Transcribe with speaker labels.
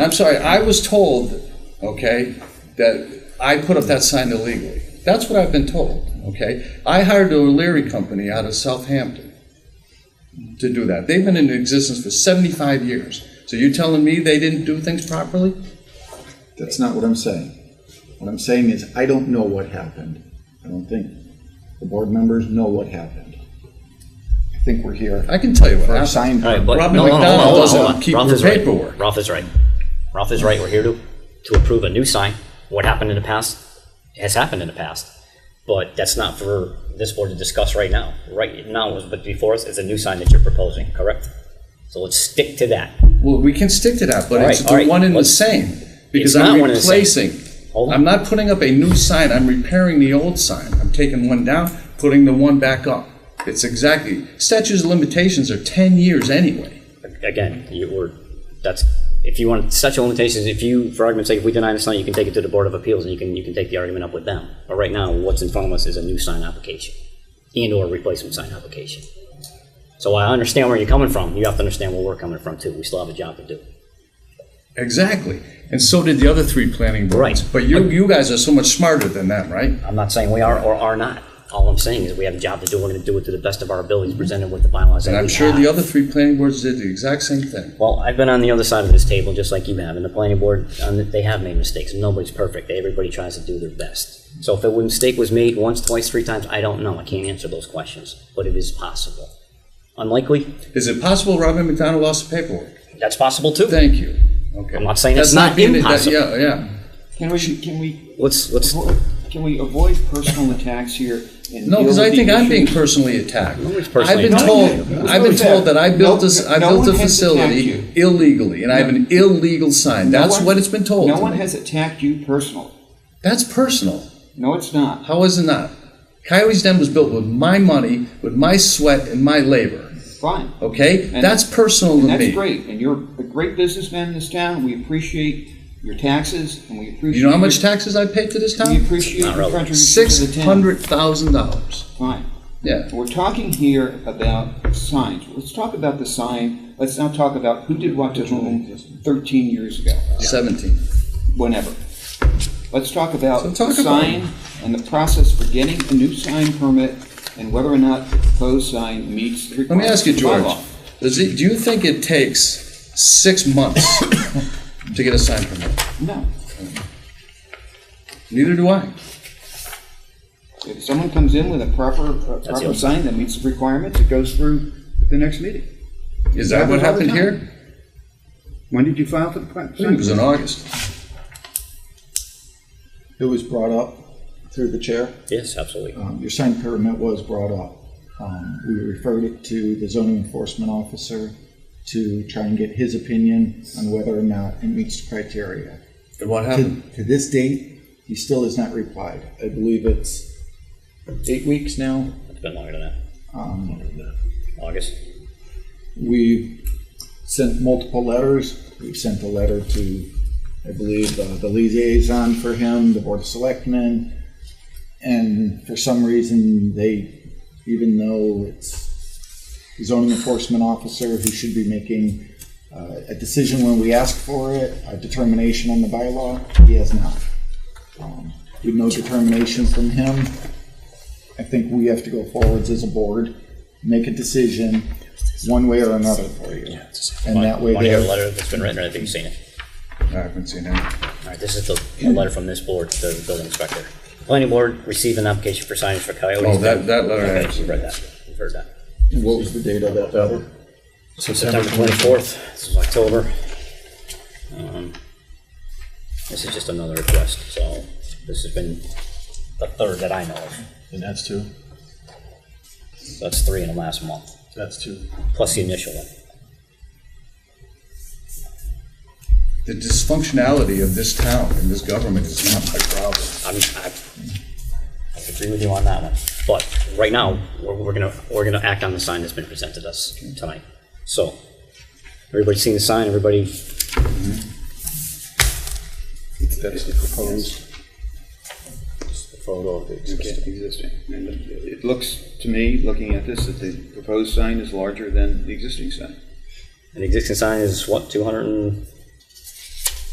Speaker 1: I'm sorry, I was told, okay, that I put up that sign illegally. That's what I've been told, okay? I hired a O'Leary company out of Southampton to do that. They've been in existence for 75 years. So you're telling me they didn't do things properly?
Speaker 2: That's not what I'm saying. What I'm saying is, I don't know what happened. I don't think the board members know what happened. I think we're here
Speaker 1: I can tell you what
Speaker 2: for a
Speaker 1: happened.
Speaker 2: sign.
Speaker 3: All right, but
Speaker 1: Robin
Speaker 3: no, no, hold on,
Speaker 1: McDonald
Speaker 3: hold on,
Speaker 1: doesn't
Speaker 3: hold on.
Speaker 1: keep
Speaker 3: Ralph
Speaker 1: your
Speaker 3: is right.
Speaker 1: paperwork.
Speaker 3: Ralph is right. Ralph is right. We're here to to approve a new sign. What happened in the past has happened in the past, but that's not for this board to discuss right now. Right now, is- but before us is a new sign that you're proposing, correct? So let's stick to that.
Speaker 1: Well, we can stick to that, but
Speaker 3: All
Speaker 1: it's
Speaker 3: right, all
Speaker 1: the
Speaker 3: right.
Speaker 1: one and the
Speaker 3: Let's-
Speaker 1: same. Because
Speaker 3: It's not
Speaker 1: I'm
Speaker 3: one and the same.
Speaker 1: replacing.
Speaker 3: Hold on.
Speaker 1: I'm not putting up a new sign, I'm repairing the old sign. I'm taking one down, putting the one back up. It's exactly, statutes of limitations are 10 years anyway.
Speaker 3: Again, you were that's if you want such limitations. If you, for argument's sake, if we deny the sign, you can take it to the board of appeals and you can you can take the argument up with them. But right now, what's in front of us is a new sign application and or replacement sign application. So I understand where you're coming from. You have to understand where we're coming from too. We still have a job to do.
Speaker 1: Exactly. And so did the other three planning boards.
Speaker 3: Right.
Speaker 1: But you, you guys are so much smarter than them, right?
Speaker 3: I'm not saying we are or are not. All I'm saying is we have a job to do. We're going to do it to the best of our abilities, presented with the bylaws.
Speaker 1: And
Speaker 3: that
Speaker 1: I'm
Speaker 3: we
Speaker 1: sure
Speaker 3: have.
Speaker 1: the other three planning boards did the exact same thing.
Speaker 3: Well, I've been on the other side of this table, just like you have, and the planning board, um, they have made mistakes. Nobody's perfect. Everybody tries to do their best. So if a mistake was made once, twice, three times, I don't know. I can't answer those questions, but it is possible. Unlikely,
Speaker 1: Is it possible Robin McDonald lost the paperwork?
Speaker 3: that's possible too.
Speaker 1: Thank you. Okay.
Speaker 3: I'm not saying it's
Speaker 1: That's
Speaker 3: not
Speaker 1: being- that-
Speaker 3: impossible.
Speaker 1: Yeah, yeah.
Speaker 4: Can we, can we,
Speaker 3: Let's, let's,
Speaker 4: avo- can we avoid personal attacks here? and
Speaker 1: No,
Speaker 4: deal
Speaker 1: because
Speaker 4: with
Speaker 1: I
Speaker 4: the
Speaker 1: think I'm
Speaker 4: issue?
Speaker 1: being personally attacked.
Speaker 3: Nobody's
Speaker 1: I've
Speaker 3: personally
Speaker 1: been
Speaker 3: attacked
Speaker 1: told,
Speaker 4: you.
Speaker 1: I've been
Speaker 4: Who's
Speaker 1: told that I built
Speaker 4: no-
Speaker 1: this, I
Speaker 4: no
Speaker 1: built
Speaker 4: one
Speaker 1: a
Speaker 4: has
Speaker 1: facility
Speaker 4: attacked
Speaker 1: illegally, and I have an illegal sign.
Speaker 4: No
Speaker 1: That's
Speaker 4: one-
Speaker 1: what it's been told
Speaker 4: No
Speaker 1: to
Speaker 4: one
Speaker 1: me.
Speaker 4: has attacked you personally.
Speaker 1: That's personal.
Speaker 4: No, it's not.
Speaker 1: How is it not? Coyote's Den was built with my money, with my sweat, and my labor,
Speaker 4: Fine.
Speaker 1: okay?
Speaker 4: And-
Speaker 1: That's personal
Speaker 4: And
Speaker 1: to
Speaker 4: that's
Speaker 1: me.
Speaker 4: great. And you're a great businessman in this town. We appreciate your taxes and we appreciate.
Speaker 1: You know how much
Speaker 4: your-
Speaker 1: taxes I paid to this
Speaker 4: We
Speaker 1: town?
Speaker 4: appreciate
Speaker 3: Not
Speaker 4: your
Speaker 3: relevant.
Speaker 4: contribution to
Speaker 1: Six
Speaker 4: the town.
Speaker 1: hundred thousand dollars.
Speaker 4: Fine.
Speaker 1: Yeah.
Speaker 4: We're talking here about signs. Let's talk about the sign. Let's not talk about who did what to whom 13 years ago,
Speaker 1: Seventeen.
Speaker 4: whenever. Let's talk about
Speaker 1: So
Speaker 4: the
Speaker 1: talk about
Speaker 4: sign and the process for getting a new sign permit and whether or not the proposed sign meets the
Speaker 1: Let me
Speaker 4: requirements
Speaker 1: ask you,
Speaker 4: of the
Speaker 1: George,
Speaker 4: bylaw.
Speaker 1: does it, do you think it takes six months to get a sign permit?
Speaker 4: No.
Speaker 1: Neither do I.
Speaker 4: If someone comes in with a proper, a
Speaker 3: the
Speaker 4: proper
Speaker 3: only-
Speaker 4: sign that meets the requirements, it goes through the next meeting.
Speaker 1: Is that what happened here?
Speaker 5: When did you file for the
Speaker 1: I think it was in August.
Speaker 2: It was brought up through the chair.
Speaker 3: yes, absolutely.
Speaker 2: Um, Your sign permit was brought up. Um, We referred it to the zoning enforcement officer to try and get his opinion on whether or not it meets the criteria.
Speaker 1: And what
Speaker 2: To to this date, he still has not replied. I believe it's eight weeks now.
Speaker 3: It's been longer than that.
Speaker 2: Um,
Speaker 3: August.
Speaker 2: We've sent multiple letters. We've sent a letter to, I believe, uh, the liaison for him, the Board of Selectmen. And for some reason, they, even though it's the zoning enforcement officer who should be making uh, a decision when we ask for it, a determination on the bylaw, he has not. Um, With no determination from him, I think we have to go forwards as a board, make a decision, one way or another for you. And that way
Speaker 3: Want to hear a
Speaker 2: there,
Speaker 3: letter that's been written, or I think you've seen it?
Speaker 1: I haven't seen any.
Speaker 3: All right, this is the the letter from this board, to the building inspector. Planning board received an application for signage for coyotes.
Speaker 1: Oh, that- that letter I
Speaker 3: Okay,
Speaker 1: actually-
Speaker 3: you've read that, you've heard that.
Speaker 2: what was the date of that letter?
Speaker 3: September 24th, this is October.
Speaker 6: Uh-huh.
Speaker 3: Um, This is just another request, so this has been the third that I know of.
Speaker 6: And that's two?
Speaker 3: So That's three in the last month,
Speaker 6: That's two.
Speaker 3: plus the initial one.
Speaker 1: The dysfunctionality of this town and this government is not my problem.
Speaker 3: I'm, I I agree with you on that one, but right now, we're, we're gonna, we're gonna act on the sign that's been presented us tonight. So, everybody seen the sign, everybody?
Speaker 5: That's the proposed. It's the photo of the existing. And it it looks to me, looking at this, that the proposed sign is larger than the existing sign.
Speaker 3: An existing sign is what, two hundred and